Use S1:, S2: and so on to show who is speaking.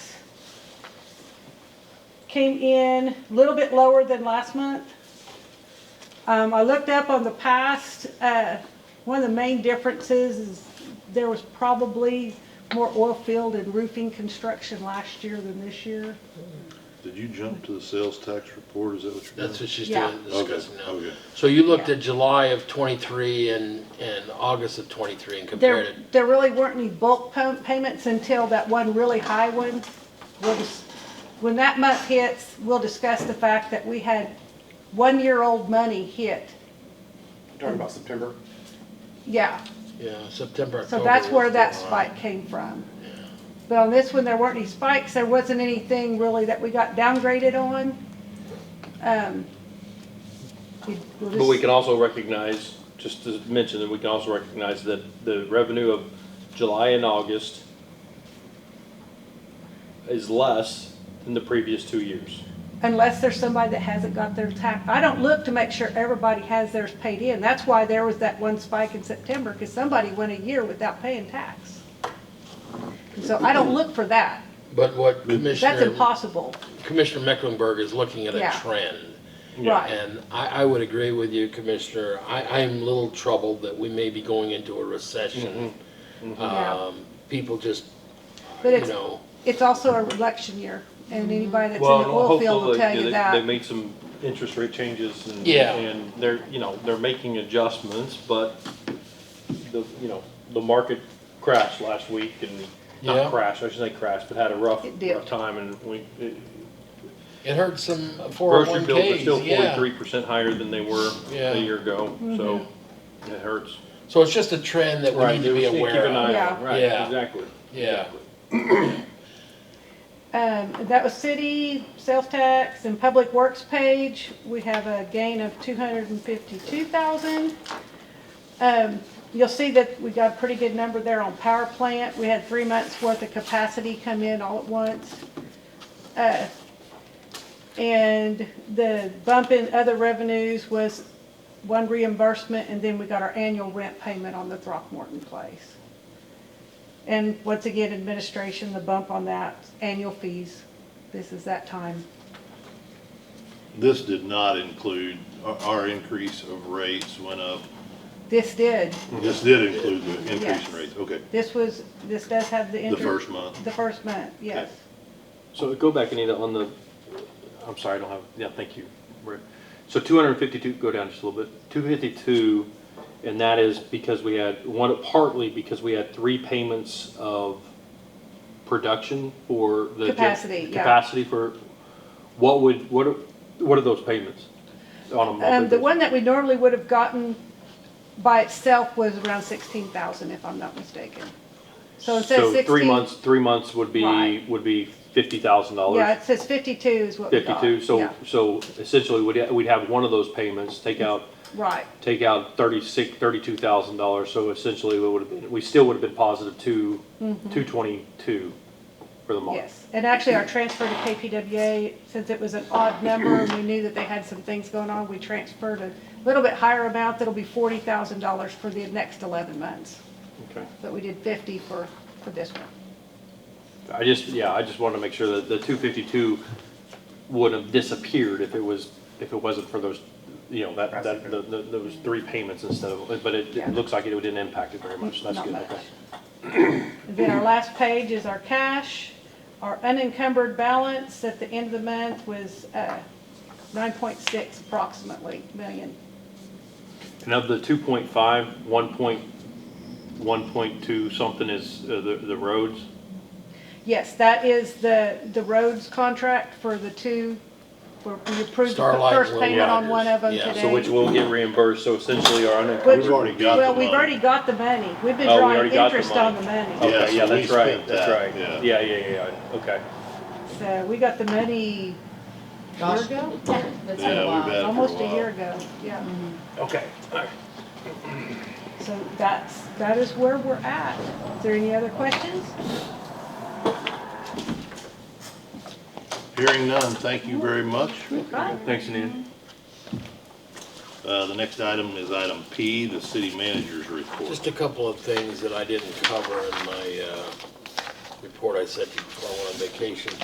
S1: came in a little bit lower than last month. Um, I looked up on the past, uh, one of the main differences is there was probably more oil field and roofing construction last year than this year.
S2: Did you jump to the sales tax report? Is that what you're
S3: That's
S2: doing?
S3: what she's
S1: Yeah.
S3: doing,
S2: Okay,
S3: discussing now.
S2: okay.
S3: So you looked
S1: Yeah.
S3: at July of twenty-three and, and August of twenty-three and compared
S1: There,
S3: it.
S1: there really weren't any bulk pa- payments until that one really high one. We'll just, when that month hits, we'll discuss the fact that we had one-year-old money hit.
S4: Talking about September?
S1: Yeah,
S3: Yeah, September, October.
S1: so that's where
S3: was
S1: that
S3: the line.
S1: spike came from. But on this one, there weren't any spikes. There wasn't anything really that we got downgraded on. Um, we- we'll
S5: But we
S1: just-
S5: can also recognize, just to mention, that we can also recognize that the revenue of July and August is less than the previous two years.
S1: unless there's somebody that hasn't got their tax. I don't look to make sure everybody has theirs paid in. That's why there was that one spike in September, because somebody went a year without paying tax. And So I don't look for that.
S3: But what
S1: That's
S3: Commissioner,
S1: impossible.
S3: Commissioner Mecklenburg is looking at
S1: Yeah.
S3: a trend.
S1: Right.
S3: And I, I would agree with you, Commissioner. I, I'm a little troubled that we may be going into a recession.
S5: Mm-hmm.
S1: Yeah.
S3: Um, people just,
S1: But
S3: you
S1: it's,
S3: know,
S1: it's also an election year, and anybody that's in the
S5: Well,
S1: oil
S5: hopefully
S1: field will tell
S5: they-
S1: you
S5: They
S1: that.
S5: made some interest rate changes and.
S3: Yeah.
S5: And they're, you know, they're making adjustments, but the, you know, the market crashed last week and,
S3: Yeah.
S5: not crashed, I should say crashed, but had a rough,
S1: It did.
S5: rough time and we, it-
S3: it hurts some four oh
S5: grocery
S3: one
S5: bills are
S3: Ks,
S5: still
S3: yeah.
S5: forty-three percent higher than they were
S3: Yeah. Mm-hmm.
S5: a year ago, so it hurts.
S3: So it's just a trend that we need to be
S5: Just Keep
S3: aware
S5: an
S3: of.
S5: eye
S1: Yeah.
S5: on, right,
S3: Yeah.
S5: exactly.
S3: Yeah,
S1: Um, that was city, sales tax, and public works page. We have a gain of two hundred and fifty-two thousand. Um, you'll see that we got a pretty good number there on power plant. We had three months worth of capacity come in all at once. Uh, And the bump in other revenues was one reimbursement, and then we got our annual rent payment on the Throckmorton place. And once again, administration, the bump on that, annual fees, this is that time.
S2: This did not include, our, our increase of rates went up.
S1: This did,
S2: This did include the increase
S1: Yes.
S2: in rates, okay.
S1: this was, this does have the.
S2: The
S1: inter-
S2: first month.
S1: The first month, yes.
S2: Okay.
S5: So go back, Anita, on the, I'm sorry, I don't have, yeah, thank you, Rick. So two hundred and fifty-two, go down just a little bit, two fifty-two, and that is because we had, one, partly because we had three payments of production for the. gen-
S1: Capacity, yeah.
S5: Capacity for, what would, what are, what are those payments? On a monthly
S1: Um, the
S5: basis?
S1: one that we normally would have gotten by itself was around sixteen thousand, if I'm not mistaken. So instead of
S5: So
S1: sixteen.
S5: three months, three months would be,
S1: Right.
S5: would be fifty thousand dollars.
S1: Yeah, it says fifty-two is what we got.
S5: Fifty-two, so,
S1: Yeah,
S5: so essentially, we'd, we'd have one of those payments, take out,
S1: Right,
S5: take out thirty-six, thirty-two thousand dollars, so essentially, we would have been, we still would have been positive two, two twenty-two for the month.
S1: Mm-hmm. yes. And actually, our transfer to KPWA, since it was an odd number, and we knew that they had some things going on, we transferred a little bit higher amount, that'll be forty thousand dollars for the next eleven months.
S5: Okay.
S1: But we did fifty for, for this one.
S5: I just, yeah, I just wanted to make sure that the two fifty-two would have disappeared if it was, if it wasn't for those, you know, that, that, the- the- those three payments instead of, but it,
S1: Yeah.
S5: it looks like it didn't impact it very much, that's
S1: Not
S5: good,
S1: much.
S5: okay.
S1: And then our last page is our cash. Our unencumbered balance at the end of the month was uh, 9.6 approximately million.
S5: And of the 2.5, 1.2 something is uh, the, the roads?
S1: Yes, that is the, the roads contract for the two, where we approved the
S3: Starlight
S1: first
S3: Road
S1: payment on
S3: Riders.
S1: one of them
S3: Yeah, so
S1: today.
S5: So which will get reimbursed, so essentially our
S1: Which-
S2: We've
S5: unencumbered.
S2: already got the
S1: Well, we've
S2: money.
S1: already got the money. We've been
S5: Oh, we
S1: drawing
S5: already got the
S1: interest
S5: money.
S1: on the money.
S2: Yeah,
S5: Okay, yeah,
S2: so we
S5: that's right,
S2: spent
S5: that's
S2: that,
S5: right.
S2: yeah.
S5: Yeah, yeah, yeah, yeah, okay.
S1: So we got the money a year ago,
S2: Yeah,
S6: That's been a
S2: we
S6: while.
S2: bet.
S1: almost a year ago, yeah.
S5: Okay.
S1: So that's, that is where we're at. Is there any other questions?
S2: Hearing none, thank you very much.
S5: Thanks, Anita.
S2: Uh, the next item is item P, the city manager's report.
S3: just a couple of things that I didn't cover in my, uh, report I sent you while I went on vacation.